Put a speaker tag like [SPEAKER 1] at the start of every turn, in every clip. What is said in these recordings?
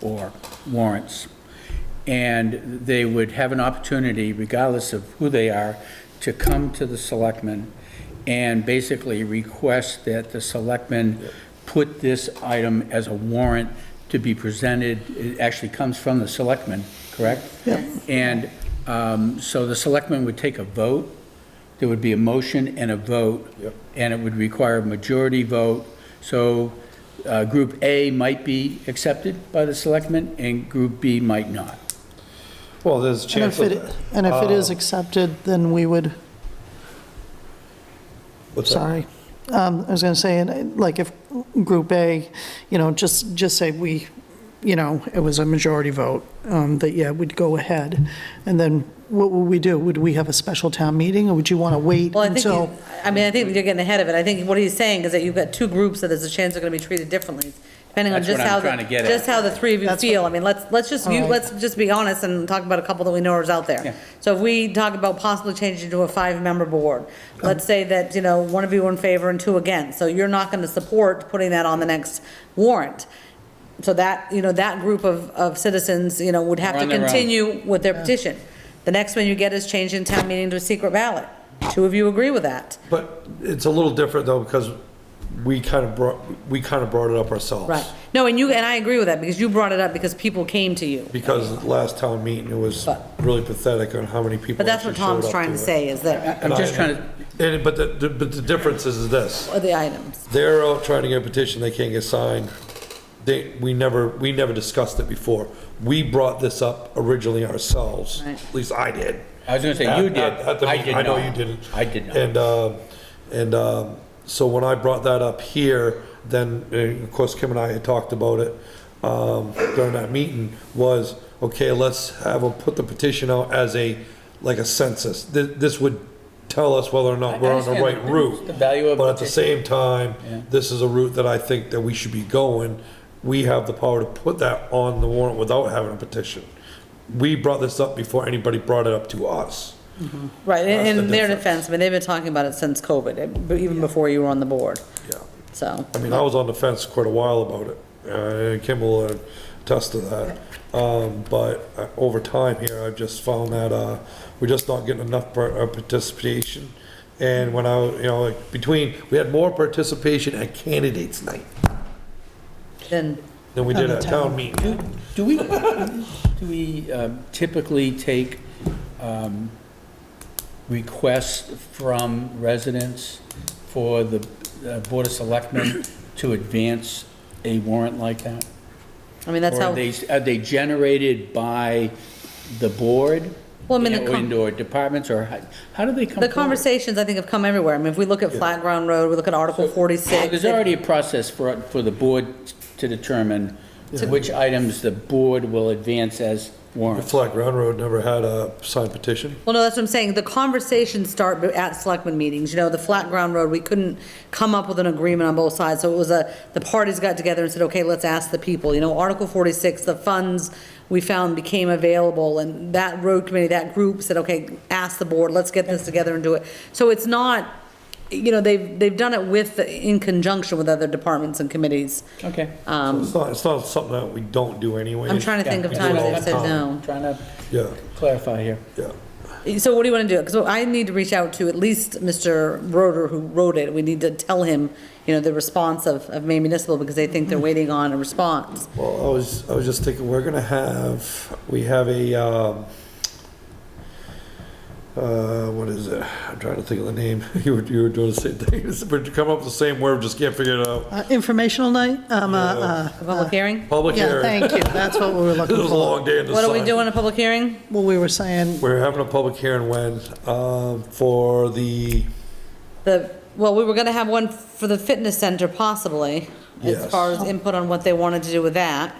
[SPEAKER 1] or warrants. And they would have an opportunity, regardless of who they are, to come to the selectmen and basically request that the selectmen put this item as a warrant to be presented. It actually comes from the selectmen, correct? And um, so the selectmen would take a vote. There would be a motion and a vote. And it would require a majority vote. So uh, Group A might be accepted by the selectmen, and Group B might not.
[SPEAKER 2] Well, there's a
[SPEAKER 3] And
[SPEAKER 2] chance
[SPEAKER 3] if it,
[SPEAKER 2] of.
[SPEAKER 3] and if it
[SPEAKER 2] Uh,
[SPEAKER 3] is accepted, then we would,
[SPEAKER 2] What's that?
[SPEAKER 3] sorry. Um, I was gonna say, and uh, like if Group A, you know, just, just say we, you know, it was a majority vote, um, that yeah, we'd go ahead. And then what would we do? Would we have a special town meeting or would you wanna wait
[SPEAKER 4] Well, I think,
[SPEAKER 3] until?
[SPEAKER 4] you- I mean, I think you're getting ahead of it. I think what he's saying is that you've got two groups that there's a chance they're gonna be treated differently, depending on
[SPEAKER 1] That's
[SPEAKER 4] just
[SPEAKER 1] what I'm
[SPEAKER 4] how,
[SPEAKER 1] trying to
[SPEAKER 4] the-
[SPEAKER 1] get at.
[SPEAKER 4] just how the three of you
[SPEAKER 3] That's what-
[SPEAKER 4] feel. I mean, let's, let's just, you-
[SPEAKER 3] Alright.
[SPEAKER 4] let's just be honest and talk about a couple that we know is out
[SPEAKER 1] Yeah.
[SPEAKER 4] there. So if we talk about possibly changing to a five-member board, let's say that, you know, one of you in favor and two against. So you're not gonna support putting that on the next warrant. So that, you know, that group of, of citizens, you know, would have
[SPEAKER 1] Are
[SPEAKER 4] to
[SPEAKER 1] on their own.
[SPEAKER 4] continue with their petition. The next one you get is changing town meeting to a secret ballot. Two of you agree with that.
[SPEAKER 2] But it's a little different though, because we kind of brought, we kind of brought it up ourselves.
[SPEAKER 4] Right. No, and you, and I agree with that, because you brought it up because people came to you.
[SPEAKER 2] Because last town meeting, it was
[SPEAKER 4] But-
[SPEAKER 2] really pathetic on how many people.
[SPEAKER 4] But that's what
[SPEAKER 2] actually showed
[SPEAKER 4] Tom's
[SPEAKER 2] up
[SPEAKER 4] trying to
[SPEAKER 2] it.
[SPEAKER 4] say, is that,
[SPEAKER 1] I'm just trying to,
[SPEAKER 2] And, but the- the, but the difference is this,
[SPEAKER 4] are the items.
[SPEAKER 2] they're out trying to get a petition, they can't get signed. They, we never, we never discussed it before. We brought this up originally ourselves,
[SPEAKER 4] Right.
[SPEAKER 2] at least I did.
[SPEAKER 1] I was gonna say, you
[SPEAKER 2] At-
[SPEAKER 1] did.
[SPEAKER 2] at- at the
[SPEAKER 1] I
[SPEAKER 2] meeting.
[SPEAKER 1] did
[SPEAKER 2] I know
[SPEAKER 1] not.
[SPEAKER 2] you didn't.
[SPEAKER 1] I did not.
[SPEAKER 2] And, um, and um, so when I brought that up here, then, uh, of course, Kim and I had talked about it um, during that meeting, was, okay, let's have them put the petition out as a, like a census. Th- This would tell us whether or not we're on the
[SPEAKER 1] understand
[SPEAKER 2] right
[SPEAKER 1] the-
[SPEAKER 2] route.
[SPEAKER 1] the value of
[SPEAKER 2] But at the
[SPEAKER 1] petition.
[SPEAKER 2] same time, this is a route that I think that we should be going. We have the power to put that on the warrant without having a petition. We brought this up before anybody brought it up to us.
[SPEAKER 4] Right,
[SPEAKER 2] That's
[SPEAKER 4] and
[SPEAKER 2] the
[SPEAKER 4] in their
[SPEAKER 2] difference.
[SPEAKER 4] defense, I mean, they've been talking about it since COVID, eh, but even before you were on the board,
[SPEAKER 2] Yeah.
[SPEAKER 4] so.
[SPEAKER 2] I mean, I was on the fence quite a while about it, uh, and Kim will attest to that. Um, but uh, over time here, I've just found that, uh, we're just not getting enough par- uh, participation. And when I, you know, like, between, we had more participation at candidates night
[SPEAKER 4] Then,
[SPEAKER 2] than we did
[SPEAKER 3] the
[SPEAKER 2] at
[SPEAKER 3] town.
[SPEAKER 2] town meeting.
[SPEAKER 1] do do we, do we um, typically take um, requests from residents for the uh, Board of Selectmen to advance a warrant like that?
[SPEAKER 4] I mean, that's
[SPEAKER 1] Or
[SPEAKER 4] how,
[SPEAKER 1] are they, are they generated by the board?
[SPEAKER 4] Well, I mean, the
[SPEAKER 1] And-
[SPEAKER 4] con-
[SPEAKER 1] And/or departments, or how, how do they come
[SPEAKER 4] the
[SPEAKER 1] forward?
[SPEAKER 4] conversations, I think, have come everywhere. I mean, if we look at Flat Ground Road, we look at Article
[SPEAKER 1] So
[SPEAKER 4] 46.
[SPEAKER 1] There's already a process for, for the board to determine which items the board will advance as warrants.
[SPEAKER 2] Flat Ground Road never had a signed petition.
[SPEAKER 4] Well, no, that's what I'm saying. The conversations start at selectmen meetings. You know, the flat ground road, we couldn't come up with an agreement on both sides. So it was a, the parties got together and said, okay, let's ask the people. You know, Article 46, the funds we found became available and that road committee, that group said, okay, ask the board, let's get this together and do it. So it's not, you know, they've, they've done it with, in conjunction with other departments and committees.
[SPEAKER 1] Okay.
[SPEAKER 4] Um,
[SPEAKER 2] It's not, it's not something that we don't do anyway.
[SPEAKER 4] I'm trying to think of
[SPEAKER 2] We do it
[SPEAKER 4] times
[SPEAKER 2] all
[SPEAKER 4] they've
[SPEAKER 2] the
[SPEAKER 4] said
[SPEAKER 2] time.
[SPEAKER 4] no.
[SPEAKER 1] Trying to
[SPEAKER 2] Yeah,
[SPEAKER 1] clarify here.
[SPEAKER 2] yeah.
[SPEAKER 4] So what do you want to do? Because I need to reach out to at least Mr. Roder, who wrote it. We need to tell him, you know, the response of, of Maine Municipal, because they think they're waiting on a response.
[SPEAKER 2] Well, I was, I was just thinking, we're gonna have, we have a, um, uh, what is it? I'm trying to think of the name. You were, you were doing the same thing. We're coming up with the same word, just can't figure it out.
[SPEAKER 3] Uh, Informational night? Um, uh, uh,
[SPEAKER 4] A public hearing?
[SPEAKER 2] Public
[SPEAKER 3] Yeah,
[SPEAKER 2] hearing.
[SPEAKER 3] thank you. That's what we were
[SPEAKER 2] It
[SPEAKER 3] looking
[SPEAKER 2] was a
[SPEAKER 3] for.
[SPEAKER 2] long day in the
[SPEAKER 4] What are we
[SPEAKER 2] sun.
[SPEAKER 4] doing, a public hearing?
[SPEAKER 3] Well, we were saying,
[SPEAKER 2] We're having a public hearing when, um, for the,
[SPEAKER 4] The, well, we were going to have one for the fitness center possibly, as
[SPEAKER 2] Yes.
[SPEAKER 4] far as input on what they wanted to do with that.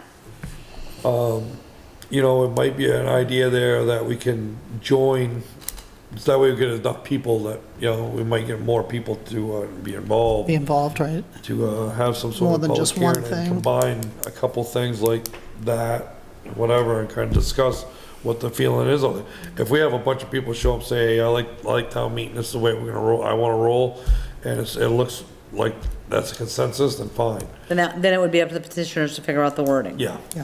[SPEAKER 2] you know, it might be an idea there that we can join. So that way we get enough people that, you know, we might get more people to, uh, be involved.
[SPEAKER 3] be involved, right?
[SPEAKER 2] to uh, have some
[SPEAKER 3] More
[SPEAKER 2] sort of
[SPEAKER 3] than
[SPEAKER 2] public
[SPEAKER 3] just one
[SPEAKER 2] hearing and
[SPEAKER 3] thing.
[SPEAKER 2] combine a couple things like that, whatever, and kind of discuss what the feeling is on it. If we have a bunch of people show up, say, "Hey, I like, I like town meeting, this is the way we're gonna roll, I wanna roll, and it's, it looks like that's a consensus, then fine.
[SPEAKER 4] Then that, then it would be up to the petitioners to figure out the wording.
[SPEAKER 2] Yeah.
[SPEAKER 3] Yeah.